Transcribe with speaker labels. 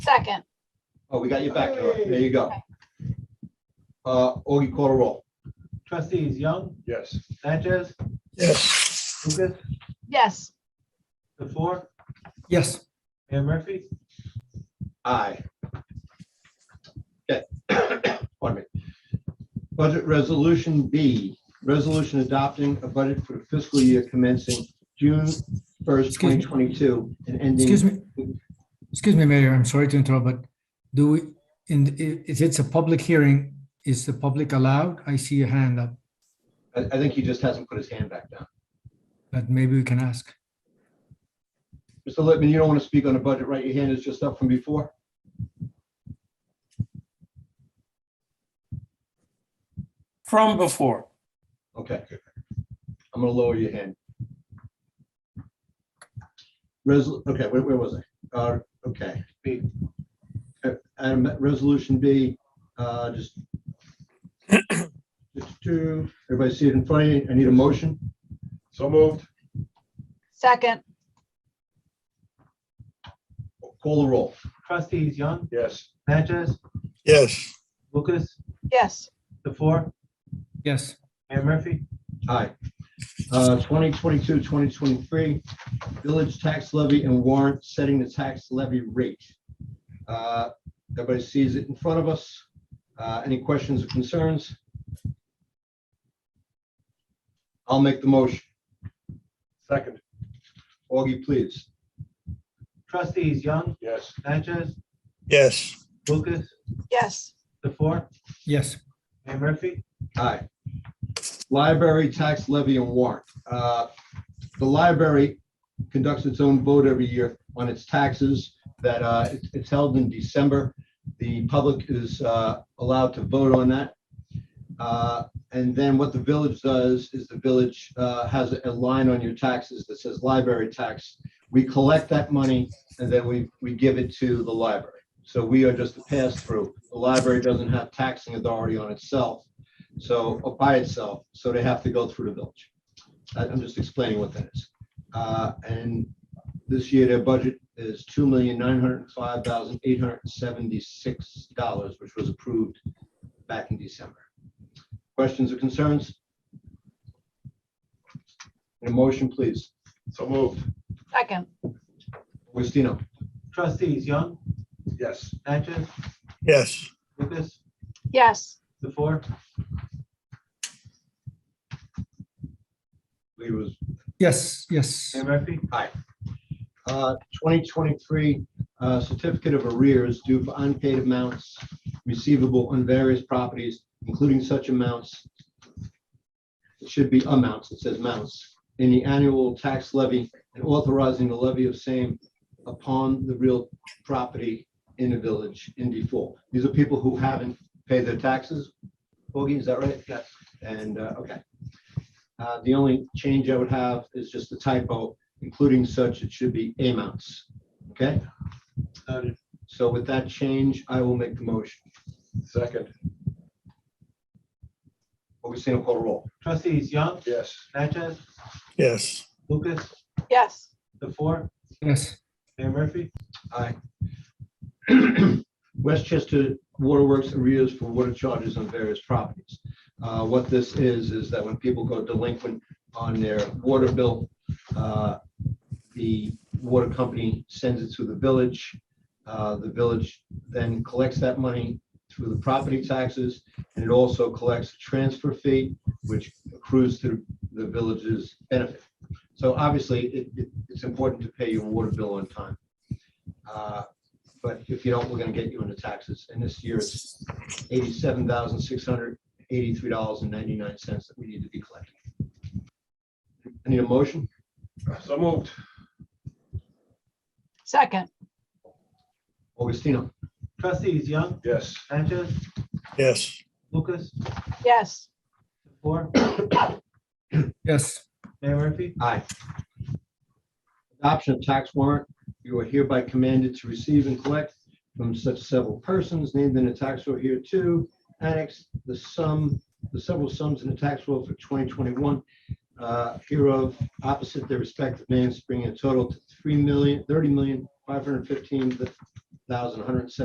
Speaker 1: Second,
Speaker 2: Oh, we got you back, Eric. There you go. Uh, Augie, call a roll.
Speaker 3: Trustees Young,
Speaker 4: Yes.
Speaker 3: Natchez,
Speaker 5: Yes.
Speaker 3: Lucas,
Speaker 1: yes,
Speaker 3: the four,
Speaker 5: Yes.
Speaker 3: Mayor Murphy.
Speaker 2: Aye. Okay. Pardon me. Budget Resolution B, resolution adopting a budget for the fiscal year commencing June first,
Speaker 5: Excuse
Speaker 2: twenty
Speaker 5: me.
Speaker 2: twenty-two and
Speaker 5: Excuse
Speaker 2: ending.
Speaker 5: me, excuse me, Mayor, I'm sorry to interrupt, but do we, in, i- if it's a public hearing, is the public allowed? I see a hand up,
Speaker 2: I, I think he just hasn't put his hand back down.
Speaker 5: but maybe we can ask.
Speaker 2: Mr. Lippman, you don't want to speak on the budget, right? Your hand is just up from before.
Speaker 6: from before.
Speaker 2: Okay. I'm gonna lower your hand. Resol, okay, where, where was I? Uh, okay. B. Uh, And resolution B, uh, just. Just two, everybody see it in front of you. I need a motion.
Speaker 4: So moved.
Speaker 1: second,
Speaker 2: Call the roll.
Speaker 3: Trustees Young,
Speaker 4: Yes.
Speaker 3: Natchez,
Speaker 5: Yes.
Speaker 3: Lucas,
Speaker 1: yes,
Speaker 3: the four,
Speaker 5: Yes,
Speaker 3: Mayor Murphy.
Speaker 2: Aye. Uh, 2022, 2023, village tax levy and warrant setting the tax levy rate. Uh, Everybody sees it in front of us. Uh, Any questions or concerns? I'll make the motion.
Speaker 4: Second.
Speaker 2: Augie, please.
Speaker 3: Trustees Young,
Speaker 4: Yes.
Speaker 3: Natchez,
Speaker 7: Yes,
Speaker 3: Lucas,
Speaker 1: yes,
Speaker 3: the four,
Speaker 5: yes,
Speaker 3: Mayor Murphy.
Speaker 2: Aye. Library tax levy and warrant. Uh, The library conducts its own vote every year on its taxes that uh, it's- it's held in December. The public is uh, allowed to vote on that. Uh, And then what the village does is the village uh, has a line on your taxes that says library tax. We collect that money and then we, we give it to the library. So we are just a pass-through. The library doesn't have taxing authority on itself. So, or by itself, so they have to go through the village. I- I'm just explaining what that is. Uh, And this year, their budget is two million nine hundred five thousand eight hundred seventy-six dollars, which was approved back in December. Questions or concerns? A motion, please.
Speaker 4: So moved.
Speaker 1: second,
Speaker 2: Augustino.
Speaker 3: Trustees Young,
Speaker 4: Yes.
Speaker 3: Natchez,
Speaker 7: yes,
Speaker 3: Lucas,
Speaker 1: yes,
Speaker 3: the four,
Speaker 2: Lee was
Speaker 5: yes, yes,
Speaker 3: Mayor Murphy.
Speaker 2: Uh, 2023 uh, certificate of arrears due for unpaid amounts receivable on various properties, including such amounts. It should be amounts, it says mounts, in the annual tax levy and authorizing the levy of same upon the real property in the village in default. These are people who haven't paid their taxes. Boogie, is that right? Yes. And, uh, okay. Uh, The only change I would have is just the typo including such, it should be amounts. Okay,
Speaker 3: Noted.
Speaker 2: so with that change, I will make the motion.
Speaker 4: Second.
Speaker 2: Augustino call the roll.
Speaker 3: Trustees Young,
Speaker 4: Yes.
Speaker 3: Natchez,
Speaker 7: yes,
Speaker 3: Lucas,
Speaker 1: yes,
Speaker 3: the four,
Speaker 5: yes,
Speaker 3: Mayor Murphy.
Speaker 2: Aye. Westchester Waterworks arrears for water charges on various properties. Uh, What this is, is that when people go delinquent on their water bill, uh, the water company sends it to the village. Uh, The village then collects that money through the property taxes, and it also collects a transfer fee, which accrues to the village's benefit. So obviously, it, it- it's important to pay your water bill on time. Uh, But if you don't, we're gonna get you into taxes. And this year it's eighty-seven thousand, six hundred, eighty-three dollars and ninety-nine cents that we need to be collecting. I need a motion.
Speaker 4: So moved.
Speaker 1: second,
Speaker 2: Augustino.
Speaker 3: Trustees Young,
Speaker 4: Yes.
Speaker 3: Natchez,
Speaker 7: yes,
Speaker 3: Lucas,
Speaker 1: yes,
Speaker 3: the four,
Speaker 5: yes,
Speaker 3: Mayor Murphy.
Speaker 2: Aye. Adoption of tax warrant. You are hereby commanded to receive and collect from such several persons named in the tax roll here too. Annex the sum, the several sums in the tax roll for 2021 uh, hereof opposite their respective names, bringing a total to three million, thirty million, five hundred fifteen thousand, one hundred and seventy